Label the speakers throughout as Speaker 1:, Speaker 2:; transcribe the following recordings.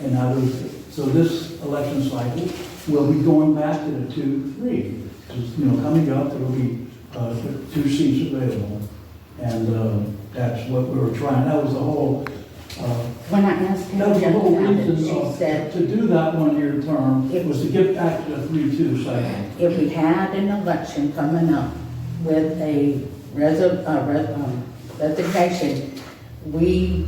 Speaker 1: And I was, so this election cycle, will be going back to the two, three. Just, you know, coming up, there will be, uh, two seats available. And, uh, that's what we were trying, that was the whole, uh,
Speaker 2: When I asked
Speaker 1: that was the whole
Speaker 2: Pam about it,
Speaker 1: reason
Speaker 2: she
Speaker 1: of-
Speaker 2: said,
Speaker 1: to do that one-year term, it was to get back to the three-two cycle.
Speaker 2: if we had an election coming up with a reso- uh, re- um, resignation, we,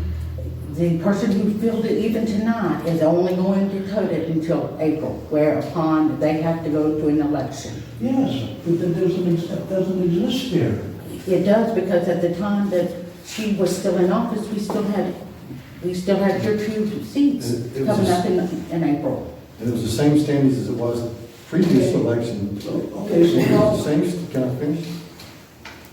Speaker 2: the person who filled it even tonight is only going to tote it until April, whereupon they have to go to an election.
Speaker 1: Yes, but that doesn't, ex- that doesn't exist here.
Speaker 2: It does, because at the time that she was still in office, we still had, we still had your two seats
Speaker 3: It- it was
Speaker 2: coming
Speaker 3: a-
Speaker 2: up in, in April.
Speaker 3: And it was the same standards as it was previous election.
Speaker 1: So,
Speaker 3: It was
Speaker 1: okay, so
Speaker 3: the
Speaker 1: now,
Speaker 3: same, can I finish?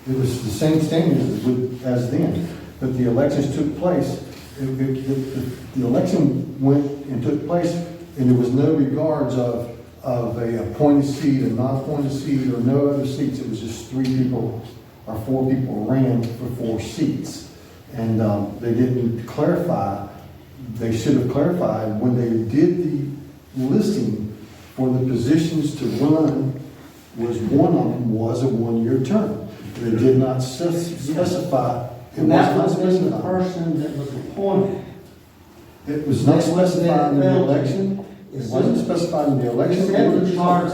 Speaker 3: It was the same standards as with- as then, but the elections took place. It- it- it- The the election went and took place, and there was no regards of, of a appointed seat, a non-appointed seat, or no other seats. It was just three people or four people ran for four seats. And um, they didn't clarify, they should have clarified when they did the listing for the positions to run was one of them was a one-year term. They did not spec- specify. It was
Speaker 4: And that
Speaker 3: not
Speaker 4: was been the
Speaker 3: specified.
Speaker 4: person that was appointed.
Speaker 3: It was not specified in the election. It wasn't specified in the
Speaker 4: It
Speaker 3: election.
Speaker 4: said the charge,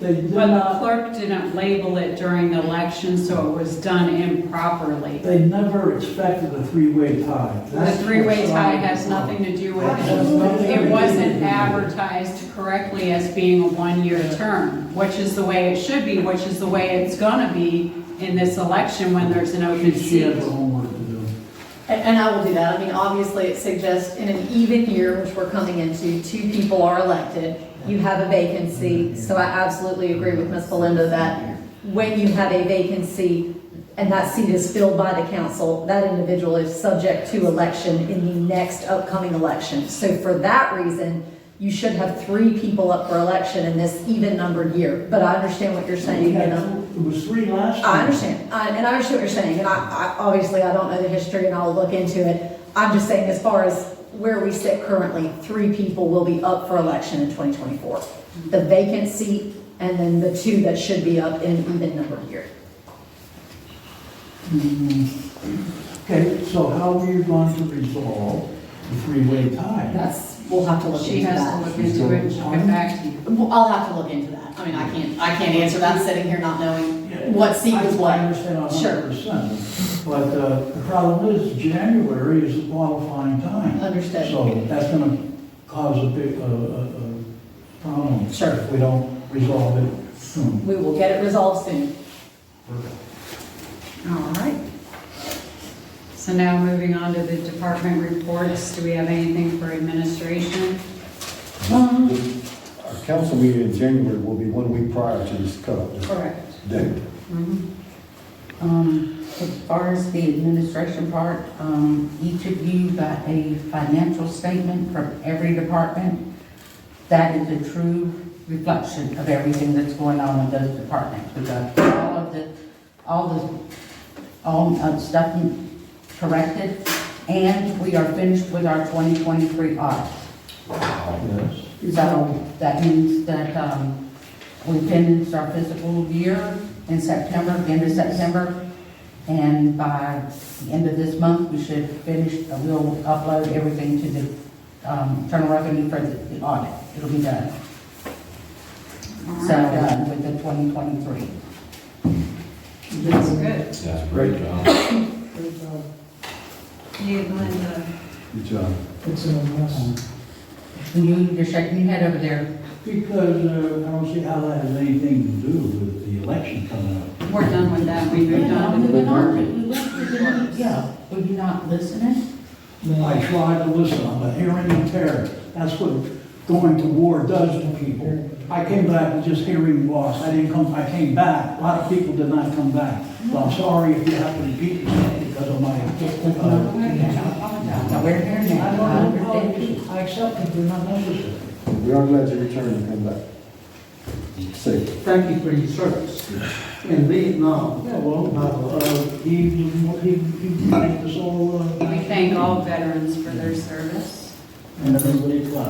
Speaker 1: they did
Speaker 5: Well, the
Speaker 1: not,
Speaker 5: clerk didn't label it during the election, so it was done improperly.
Speaker 1: they never expected a three-way tie.
Speaker 5: The
Speaker 1: That's
Speaker 5: three-way
Speaker 1: what's
Speaker 5: tie
Speaker 1: wrong.
Speaker 5: has nothing to do with
Speaker 1: Absolutely.
Speaker 5: it. It wasn't advertised correctly as being a one-year term, which is the way it should be, which is the way it's gonna be in this election when there's an open
Speaker 1: She
Speaker 5: seat.
Speaker 1: has her homework to do.
Speaker 6: And, and I will do that. I mean, obviously, it suggests in an even year, which we're coming into, two people are elected. You have a vacancy, so I absolutely agree with Ms. Belinda that when you have a vacancy and that seat is filled by the council, that individual is subject to election in the next upcoming election. So for that reason, you should have three people up for election in this even-numbered year. But I understand what you're saying,
Speaker 1: We
Speaker 6: you
Speaker 1: had
Speaker 6: know?
Speaker 1: two- It was three last time.
Speaker 6: I understand, I- and I understand what you're saying, and I, I, obviously, I don't know the history, and I'll look into it. I'm just saying, as far as where we sit currently, three people will be up for election in 2024. The vacant seat, and then the two that should be up in even number year.
Speaker 1: Okay, so how are you going to resolve the three-way tie?
Speaker 6: That's, we'll have to look
Speaker 5: She
Speaker 6: into
Speaker 5: has to
Speaker 6: that.
Speaker 5: look into it and she'll get back to you.
Speaker 6: Well, I'll have to look into that. I mean, I can't, I can't answer that sitting here not knowing what seat was
Speaker 1: I- I
Speaker 6: what.
Speaker 1: understand a hundred
Speaker 6: Sure,
Speaker 1: percent, but uh, the problem is, January is the qualifying time.
Speaker 6: understood,
Speaker 1: So that's gonna cause a big, uh, uh, uh, problem
Speaker 6: sure.
Speaker 1: if we don't resolve it soon.
Speaker 6: We will get it resolved soon. All right.
Speaker 5: So now moving on to the department reports, do we have anything for administration?
Speaker 3: Our council meeting in January will be one week prior to this cutoff
Speaker 5: Correct.
Speaker 3: date.
Speaker 2: Um, as far as the administration part, um, each of you got a financial statement from every department. That is a true reflection of everything that's going on in those departments. We got all of the, all the, all of stuff corrected, and we are finished with our twenty twenty-three audit.
Speaker 1: Yes.
Speaker 2: So that means that um, we finished our fiscal year in September, the end of September. And by the end of this month, we should finish, uh, we'll upload everything to the um, Internal Revenue for the the audit. It'll be done. So done with the 2023.
Speaker 5: That's good.
Speaker 7: That's great, John.
Speaker 5: You, Linda?
Speaker 3: Good job.
Speaker 1: It's a mess.
Speaker 2: And you, you're shaking your head over there.
Speaker 1: Because uh, I don't see how that has anything to do with the election coming up.
Speaker 5: We're done with that, we moved on to the department.
Speaker 2: Yeah, were you not listening?
Speaker 1: I try to listen, I'm a hearing impaired. That's what going to war does to people. I came back with just hearing loss, I didn't come, I came back, a lot of people did not come back. Well, I'm sorry if you have to repeat yourself because of my, uh,
Speaker 2: No, we're here
Speaker 1: I
Speaker 2: now. Uh,
Speaker 1: don't know, how it is. I accept it, they're not necessary.
Speaker 3: We are glad you returned and come back. Safe.
Speaker 4: thank you for your service in Vietnam.
Speaker 1: Yeah, well, uh, he, he, he made us all, uh.
Speaker 5: We thank all veterans for their service.
Speaker 1: and everybody clapped.